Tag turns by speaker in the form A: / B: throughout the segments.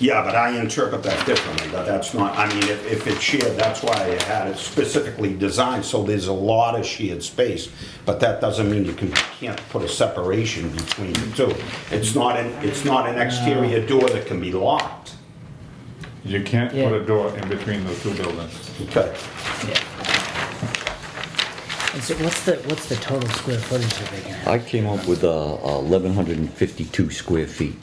A: Yeah, but I interpret that differently, that that's not, I mean, if, if it's shared, that's why I had it specifically designed, so there's a lot of shared space, but that doesn't mean you can, can't put a separation between the two. It's not an, it's not an exterior door that can be locked.
B: You can't
C: Yeah.
B: put a door in between those two buildings.
A: Okay.
C: And so what's the, what's the total square footage you're looking at?
D: I came up with uh, 1,152 square feet.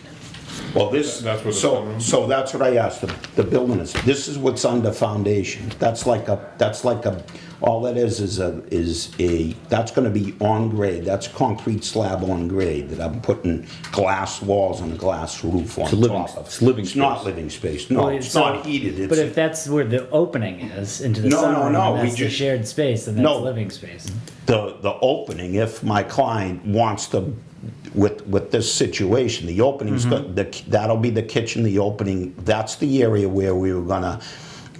A: Well, this,
B: That's what the
A: so,
B: sunroom-
A: so that's what I asked, the, the building is, this is what's under foundation. That's like a, that's like a, all it is is a, is a, that's gonna be on grade, that's concrete slab on grade that I'm putting glass walls and a glass roof on
D: a living-
A: top of.
D: it's living
A: It's not
D: space.
A: living space, no,
C: Well,
A: it's
C: so-
A: not heated,
C: But if
A: it's,
C: that's where the opening is into the
A: No, no,
C: sunroom,
A: no,
C: and
A: we
C: that's the
A: just-
C: shared space, then that's
A: No.
C: living space.
A: the, the opening, if my client wants to, with, with this situation, the opening's, got-
B: Mm-hmm.
A: the that'll be the kitchen, the opening, that's the area where we were gonna,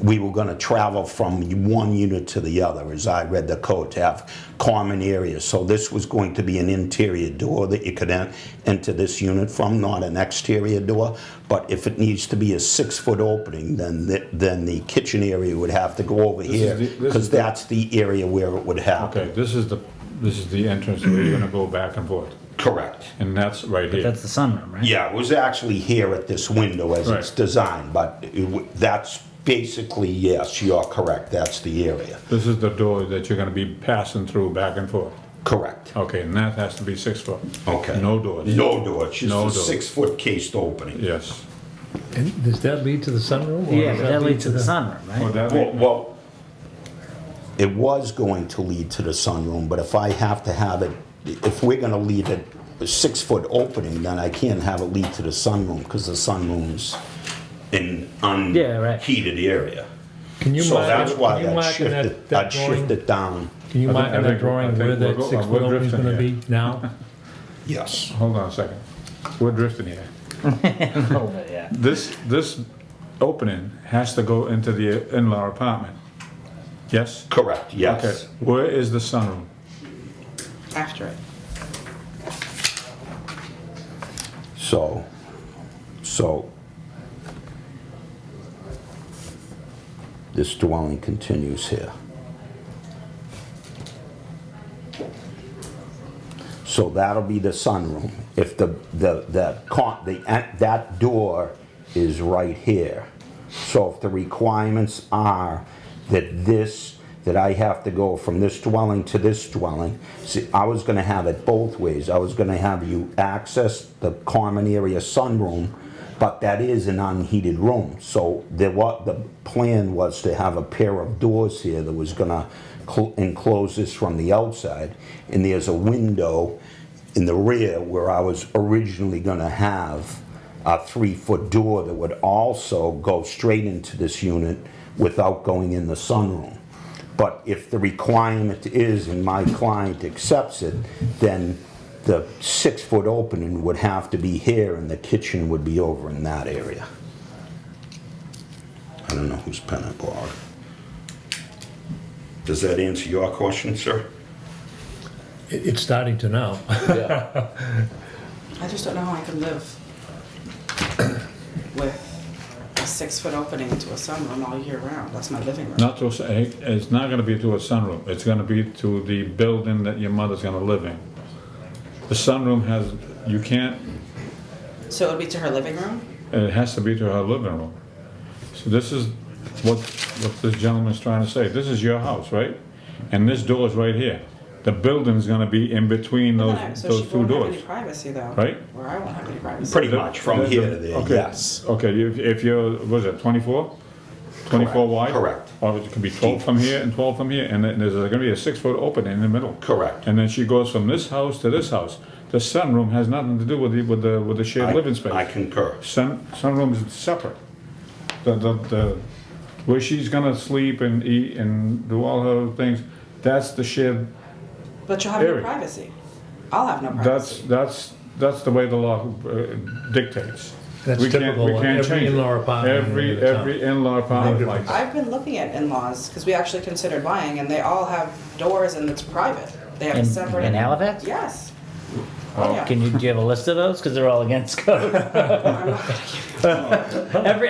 A: we were gonna travel from one unit to the other, as I read the code, to have common areas. So this was going to be an interior door that you could en- enter this unit from, not an exterior door. But if it needs to be a six-foot opening, then, the- then the kitchen area would have to go over
B: is
A: here,
B: the- this is
A: because
B: the-
A: that's the area where it would happen.
B: Okay, this is the, this is the entrance where you're gonna go back and forth,
A: Correct.
B: and that's right here.
C: That's the sunroom, right?
A: Yeah, it was actually here at this window as it's
B: Right.
A: designed, but it w- that's basically, yes, you're correct, that's the area.
B: This is the door that you're gonna be passing through back and forth.
A: Correct.
B: Okay, and that has to be six foot.
A: Okay.
B: No doors.
A: No door, it's just
B: No
A: a
B: door.
A: six-foot cased opening.
B: Yes.
E: And does that lead to the sunroom? or
C: Yeah,
E: does
C: but that leads to the sunroom,
B: Well,
C: right?
B: that-
A: Well- Well, it was going to lead to the sunroom, but if I have to have it, if we're gonna leave it a six-foot opening, then I can't have it lead to the sunroom, because the sunroom's an
C: Yeah, right.
A: unheated area.
E: Can you
A: So
E: mark,
A: that's
E: it-
A: why
E: can you
A: I'd
E: mark in
A: shift
E: that,
A: it,
E: that
A: I'd
E: drawing?
A: shift it down.
E: Can you
B: I
E: mark
B: think-
E: in
B: I think
E: that
B: we're- I
E: drawing
B: think
E: where
B: we're
E: that
B: go-
E: six
B: we're
E: foot opening's
B: drifting
E: gonna
B: here.
E: be now?
A: Yes.
B: Hold on a second. We're drifting here.
C: Yeah.
B: This, this opening has to go into the in-law apartment. Yes?
A: Correct, yes.
B: Okay, where is the sunroom?
F: after it.
A: So, so this dwelling continues here. So that'll be the sunroom. If the, the, the, con- the, that door is right here. So if the requirements are that this, that I have to go from this dwelling to this dwelling, see, I was gonna have it both ways. I was gonna have you access the common area sunroom, but that is an unheated room. So there wa, the plan was to have a pair of doors here that was gonna cl- enclose this from the outside. And there's a window in the rear where I was originally gonna have a three-foot door that would also go straight into this unit without going in the sunroom. But if the requirement is, and my client accepts it, then the six-foot opening would have to be here and the kitchen would be over in that area. I don't know whose pen I borrowed. Does that answer your question, sir?
E: It, it's starting to now.
F: I just don't know how I can live with a six foot opening to a sunroom all year round. That's my living room.
B: Not to, a s- it's not gonna be to a sunroom, it's gonna be to the building that your mother's gonna live in. The sunroom has, you can't,
F: So it would be to her living room?
B: it has to be to her living room. So this is what, what this gentleman's trying to say, this is your house, right? And this door is right here. The building's gonna be in between
F: Then
B: those,
F: I- so
B: those
F: she
B: two
F: won't have
B: doors.
F: any privacy though.
B: right?
F: Or I won't have any privacy.
A: Pretty much, from
B: The-
A: here
B: the-
A: to there,
B: okay.
A: yes.
B: Okay, if, if you're, was it twenty-four? Twenty-four wide?
A: correct.
B: Or it could be twelve from here and twelve from here, and then there's gonna be a six-foot opening in the middle.
A: Correct.
B: And then she goes from this house to this house. The sunroom has nothing to do with the, with the, with the shared living space.
A: I concur.
B: Sun, sunroom is separate. The, the, the, where she's gonna sleep and eat and do all her things, that's the shared,
F: But you'll have
B: Area.
F: no privacy. I'll have no
B: that's,
F: privacy.
B: that's, that's the way the law uh, dictates.
E: That's
B: We can't-
E: typical
B: we
E: of
B: can't
E: every
B: change it.
E: in-law apartment in
B: Every,
E: the town.
B: every in-law apartment like that.
F: I've been looking at in laws because we actually considered buying and they all have doors and it's private. They have
C: In,
F: a separate.
C: in Halifax?
F: Yes. Oh, yeah.
C: Can you, do you have a list of those? Because they're all against code.
F: I'm not gonna give you
C: Every,